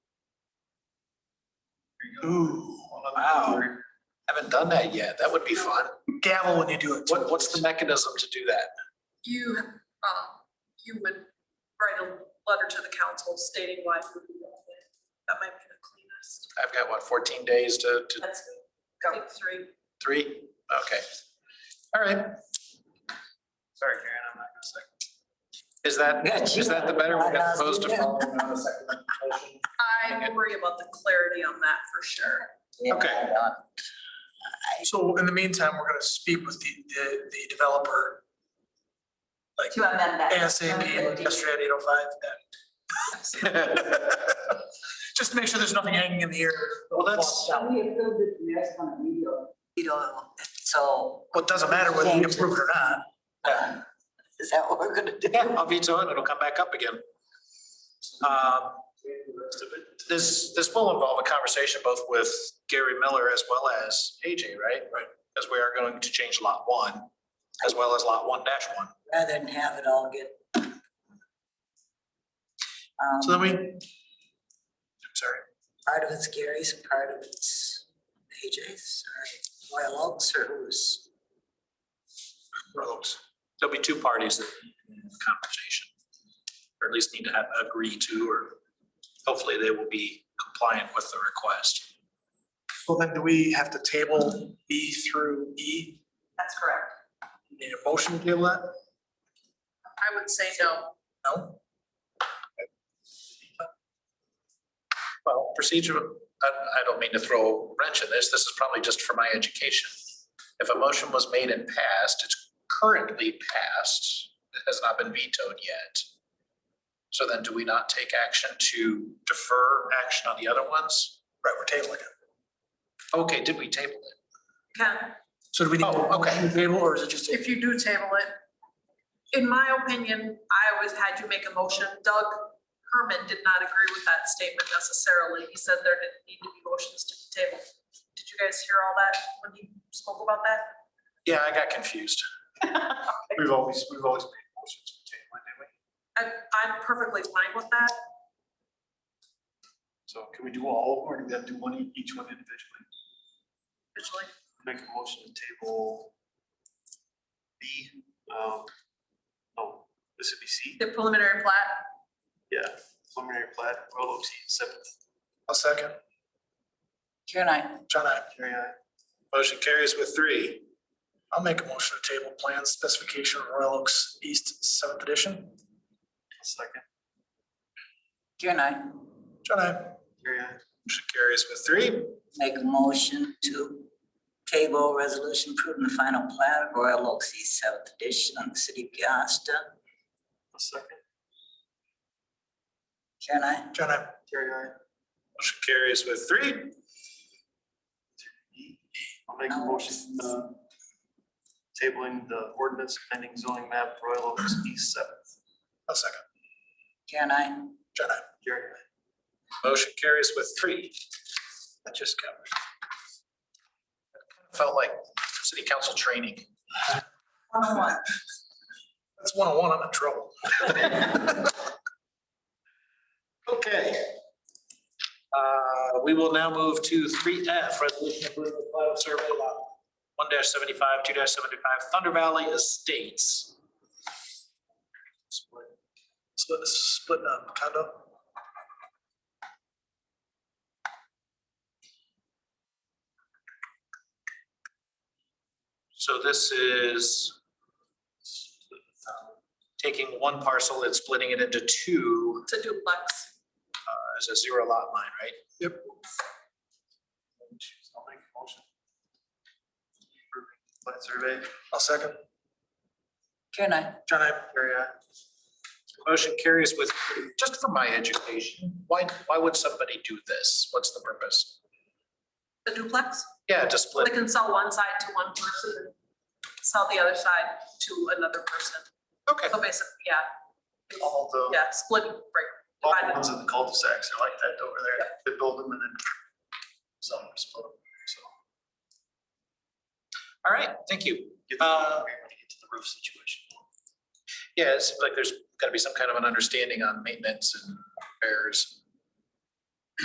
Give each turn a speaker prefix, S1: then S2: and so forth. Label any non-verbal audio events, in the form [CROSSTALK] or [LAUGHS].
S1: Ooh,
S2: Wow, haven't done that yet. That would be fun.
S1: gavel when you do it.
S2: What, what's the mechanism to do that?
S3: You, um, you would write a letter to the council stating why you would want it. That might be the cleanest.
S2: I've got what, fourteen days to, to
S3: That's, I think three.
S2: three? Okay. All right. Sorry, Karen, I'm not gonna second. Is that, is that the better one as opposed to following on a second motion?
S3: I worry about the clarity on that for sure.
S2: Okay. [LAUGHS]
S1: So in the meantime, we're gonna speak with the, the, the developer
S4: To amend that.
S1: ASAP yesterday at eight oh five. Just to make sure there's nothing hanging in the air.
S2: Well, that's,
S5: We approved it last on video.
S4: You know, so
S1: Well, it doesn't matter whether we approve it or not.
S4: is that what we're gonna do?
S2: yeah, I'll veto it, it'll come back up again. Um, This, this will involve a conversation both with Gary Miller as well as AJ, right? Right. Because we are going to change lot one as well as lot one dash one.
S4: Rather than have it all get. Um,
S1: So then we, I'm sorry,
S4: Part of it's Gary's, and part of it's AJ's, or Royal Oaks, or who's,
S2: roads. There'll be two parties that need to have a conversation, or at least need to have, agree to, or hopefully they will be compliant with the request.
S1: well then do we have to table B through E?
S3: That's correct.
S1: Need a motion to table that?
S3: I would say no.
S1: No?
S2: Well, procedure, I, I don't mean to throw a wrench in this, this is probably just for my education. If a motion was made and passed, it's currently passed, it has not been vetoed yet. So then do we not take action to defer action on the other ones?
S1: Right, we're tabling it.
S2: Okay, did we table it?
S3: Ken,
S1: So do we need a
S2: Oh, okay.
S1: motion to table or is it just?
S3: if you do table it, in my opinion, I always had you make a motion. Doug Herman did not agree with that statement necessarily. He said there didn't need to be motions to be tabled. Did you guys hear all that when he spoke about that?
S2: Yeah, I got [LAUGHS] confused.
S1: We've always, we've always made motions to table, didn't we?
S3: I, I'm perfectly fine with that.
S1: So can we do all, or do we have to do one, each one individually?
S3: Actually,
S1: Make a motion to table B, um, oh, this would be C,
S3: the preliminary plat,
S1: preliminary plat, roll up C, seventh. A second,
S4: Karen and I,
S1: John, I. Motion carries with three. I'll make a motion to table plan specification Royal Oaks East Seventh Edition. Second.
S4: Karen and I
S1: John, I.
S2: Motion carries with three.
S4: make a motion to table resolution approving the final plat of Royal Oaks East Seventh Edition on the city of Piasta.
S1: Second.
S4: Karen and I.
S1: John, I.
S2: Motion carries with three.
S6: E. I'll make a motion, uh, tabling the ordinance amending zoning map Royal Oaks East Seventh.
S1: A second.
S4: Karen and I.
S1: John, I.
S6: Jerry,
S2: Motion carries with three. That just covers. Felt like city council training.
S4: One-on-one.
S1: That's one on one, I'm in trouble.
S2: Okay. Uh, We will now move to three F, resolution approving the plat of survey lot one seventy-five, two seventy-five, Thunder Valley Estates.
S1: Split. So this is splitting up condo.
S2: So this is um, taking one parcel and splitting it into two
S3: it's a duplex.
S2: as a zero lot line, right?
S6: I'll make a motion. Plat survey,
S1: I'll second.
S4: Karen and I.
S1: John, I.
S6: Jerry, I.
S2: Motion carries with, just for my education, why, why would somebody do this? What's the purpose?
S3: The duplex,
S2: Yeah, to
S3: they
S2: split.
S3: can sell one side to one person, and sell the other side to another person.
S2: Okay.
S3: So basically, yeah,
S6: All the,
S3: yeah, split, right,
S6: all the
S3: divided.
S6: ones in the cul-de-sacs are like that over there. They build them and then some are split, so.
S2: All right, thank you.
S6: Get
S2: Uh,
S6: to get to the roof situation.
S2: Yeah, it's like there's got to be some kind of an understanding on maintenance and repairs.